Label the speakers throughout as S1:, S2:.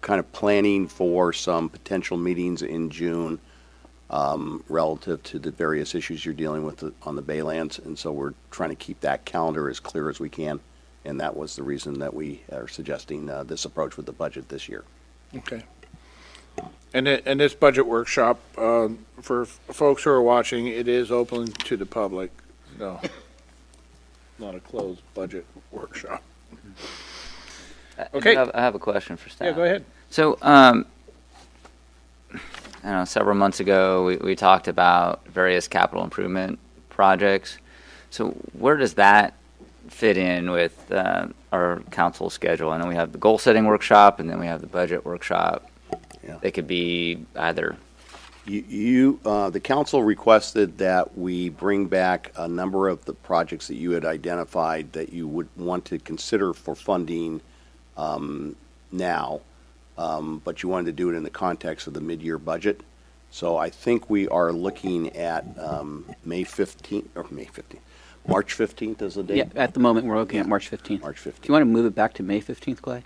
S1: kind of planning for some potential meetings in June um, relative to the various issues you're dealing with the- on the Baylands, and so we're trying to keep that calendar as clear as we can, and that was the reason that we are suggesting uh, this approach with the budget this year.
S2: Okay. And, it- and this budget workshop, um, for f- folks who are watching, it is open to the public, so not a closed budget workshop. Okay.
S3: I have, I have a question for staff.
S2: Yeah, go ahead.
S3: So, um, I don't know, several months ago, we, we talked about various capital improvement projects. So, where does that fit in with uh, our council schedule? I know we have the goal setting workshop and then we have the budget workshop.
S1: Yeah.
S3: They could be either.
S1: You- You, uh, the council requested that we bring back a number of the projects that you had identified that you would want to consider for funding um, now, um, but you wanted to do it in the context of the mid-year budget. So I think we are looking at um, May 15th, or May 15th, March 15th is the
S4: Yeah,
S1: date?
S4: at the moment, we're looking at March 15th.
S1: March
S4: Do you
S1: 15th.
S4: want to move it back to May 15th, Clay?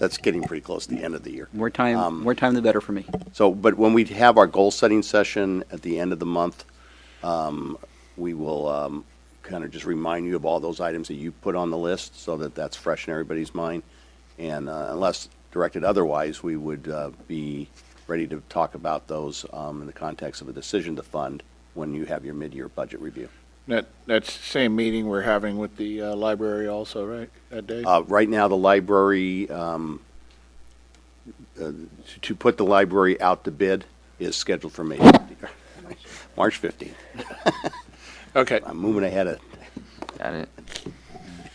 S1: That's getting pretty close to the end of the year.
S4: More time, more time the better for me.
S1: So, but when we have our goal-setting session at the end of the month, um, we will um, kind of just remind you of all those items that you put on the list so that that's fresh in everybody's mind. And uh, unless directed otherwise, we would uh, be ready to talk about those um, in the context of a decision to fund when you have your mid-year budget review.
S2: That, that's the same meeting we're having with the uh, library also, right, that day?
S1: Uh, Right now, the library, um, uh, to- to put the library out to bid is scheduled for May 15th, March 15th.
S2: Okay,
S1: I'm moving ahead of,
S3: Got it.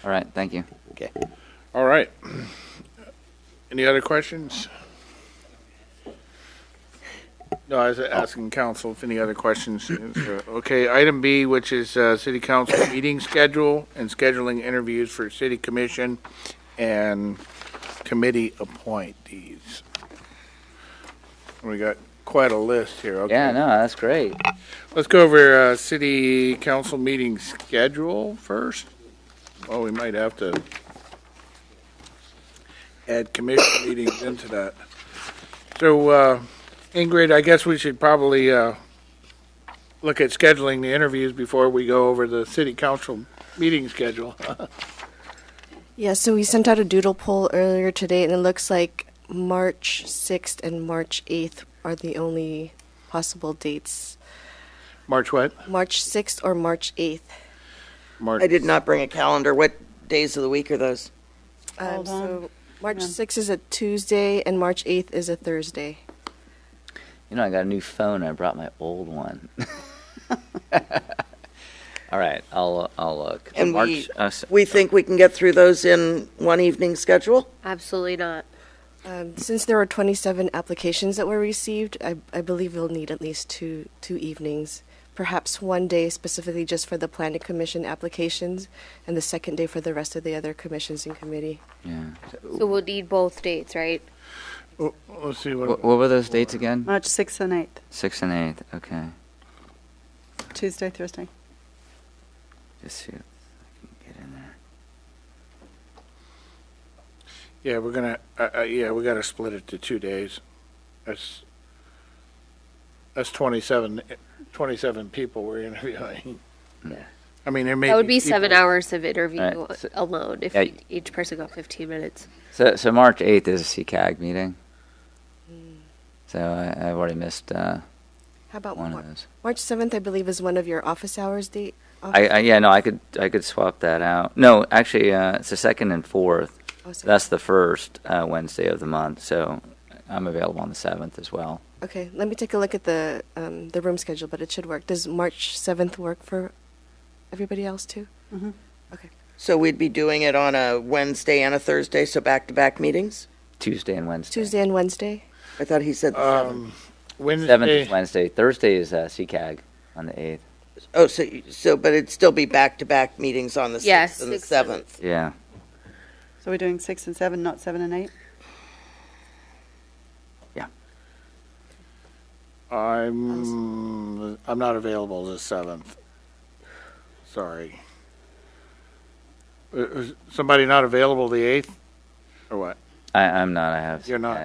S3: All right, thank you.
S1: okay.
S2: all right. Any other questions? No, I was asking council if any other questions. Okay, item B, which is uh, city council meeting schedule and scheduling interviews for city commission and committee appointees. We got quite a list here. Okay.
S3: Yeah, no, that's great.
S2: Let's go over uh, city council meeting schedule first. Well, we might have to add commission meetings into that. So, uh, Ingrid, I guess we should probably uh, look at scheduling the interviews before we go over the city council meeting schedule.
S5: Yeah, so we sent out a doodle poll earlier today, and it looks like March 6th and March 8th are the only possible dates.
S2: March what?
S5: March 6th or March 8th.
S2: March.
S6: I did not bring a calendar. What days of the week are those?
S5: Um,
S7: Hold on.
S5: so March
S7: Yeah.
S5: 6th is a Tuesday, and March 8th is a Thursday.
S3: You know, I got a new phone. I brought my old one. All right, I'll I'll look.
S6: And
S3: March,
S6: we-
S3: uh, s-
S6: We think we can get through those in one evening schedule?
S7: Absolutely not.
S5: Um, since there were 27 applications that were received, I, I believe we'll need at least two two evenings, perhaps one day specifically just for the planning commission applications, and the second day for the rest of the other commissions and committee.
S3: yeah.
S7: So we'll need both dates, right?
S2: Oh, Let's see
S3: What,
S2: what.
S3: what were those dates again?
S7: March 6th and 8th,
S3: Sixth and eighth. Okay.
S7: Tuesday, Thursday.
S3: Just see if I can get in there.
S2: Yeah, we're gonna, uh, uh, yeah, we gotta split it to two days. That's, that's 27 27 people we're interviewing. I mean, there may be.
S7: That would be seven
S2: people-
S7: hours of interview
S3: Right.
S7: alone if
S3: Yeah.
S7: e- each person got 15 minutes.
S3: So so March eighth is a CAG meeting. So I, I've already missed uh,
S5: How about
S3: one
S5: March?
S3: of those.
S5: March 7th, I believe, is one of your office hours date.
S3: I, I yeah no I could I could swap that out. No, actually uh, it's the second and fourth.
S5: Oh, sorry.
S3: That's the first uh, Wednesday of the month. So I'm available on the seventh as well.
S5: okay, let me take a look at the um, the room schedule, but it should work. Does March 7th work for everybody else too?
S8: Mm-hmm.
S6: So we'd be doing it on a Wednesday and a Thursday, so back-to-back meetings?
S3: Tuesday and Wednesday.
S5: Tuesday and Wednesday?
S6: I thought he said the
S2: Um,
S6: seventh.
S3: Seventh is
S2: Wednesday,
S3: Wednesday. Thursday is uh, CAG on the eighth.
S6: Oh, so, so, but it'd still be back-to-back meetings on the
S7: Yeah,
S6: sixth and the
S7: sixth and-
S6: seventh?
S3: Yeah.
S8: So we're doing six and seven, not seven and eight?
S2: I'm, I'm not available the seventh. Sorry. Uh, Is somebody not available the eighth? Or what? I, I'm not. I have.
S3: You're not.
S2: I-